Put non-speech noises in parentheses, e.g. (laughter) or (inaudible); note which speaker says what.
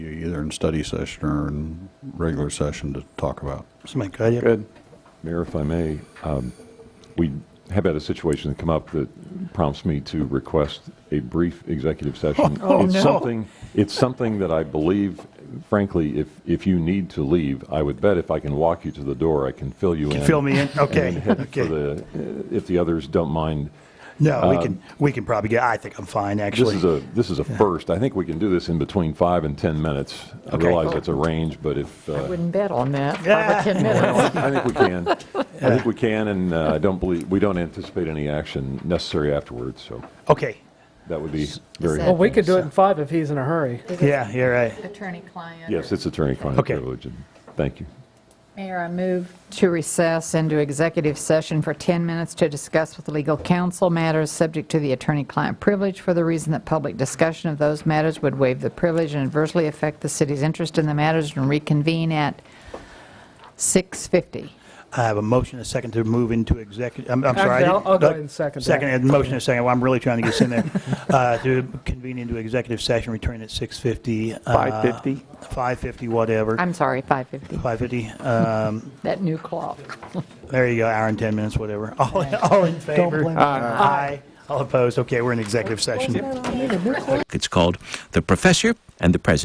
Speaker 1: either in study session or in regular session to talk about.
Speaker 2: Somebody got you?
Speaker 3: Good. Mayor, if I may, um, we have had a situation come up that prompts me to request a
Speaker 2: (laughs)
Speaker 3: brief executive session.
Speaker 2: Oh,
Speaker 3: It's
Speaker 2: no.
Speaker 3: something, it's something that I believe, frankly, if, if you need to leave, I would bet if I can walk you to the door, I can fill you in.
Speaker 2: Fill me in?
Speaker 3: and
Speaker 2: Okay,
Speaker 3: (laughs) head for
Speaker 2: okay.
Speaker 3: the- uh, If the others don't mind.
Speaker 2: No, we can, we can probably get, I think I'm fine,
Speaker 3: This
Speaker 2: actually.
Speaker 3: is a, this is a first. I think we can do this in between five and 10 minutes. I
Speaker 2: Okay. Oh.
Speaker 3: realize that's a range, but if. uh,
Speaker 4: I wouldn't bet on
Speaker 2: (laughs)
Speaker 4: that,
Speaker 2: Yeah.
Speaker 4: five or 10 minutes.
Speaker 3: I think we can. I think we can, and uh, I don't believe, we don't anticipate any action necessary afterwards, so
Speaker 2: Okay,
Speaker 3: that would be very
Speaker 4: that-
Speaker 5: Well,
Speaker 3: helpful.
Speaker 5: we could do it in five if he's in a hurry.
Speaker 2: yeah, you're right.
Speaker 6: Attorney-client.
Speaker 3: Yes, it's attorney-client
Speaker 2: Okay.
Speaker 3: privilege, and thank you.
Speaker 6: Mayor, I move
Speaker 4: To recess into executive session for 10 minutes to discuss with legal counsel matters subject to the attorney-client privilege for the reason that public discussion of those matters would waive the privilege and adversely affect the city's interest in the matters and reconvene at 6:50.
Speaker 2: I have a motion, a second to move into executive, I'm, I'm sorry. I
Speaker 5: Actually, I'll-
Speaker 2: didn't-
Speaker 5: I'll go ahead and second that.
Speaker 2: Second, and motion, a second, well, I'm really trying to get this in
Speaker 5: (laughs)
Speaker 2: there. Uh, to convene into executive session, return at 6:50. uh,
Speaker 7: 5:50?
Speaker 2: 5:50, whatever.
Speaker 4: I'm sorry, 5:50,
Speaker 2: 5:50, um,
Speaker 4: that new clock.
Speaker 2: there you go, hour and 10 minutes, whatever. (laughs) All, all in favor? Aye. All opposed, okay, we're in executive session.
Speaker 8: It's called The Professor and the President.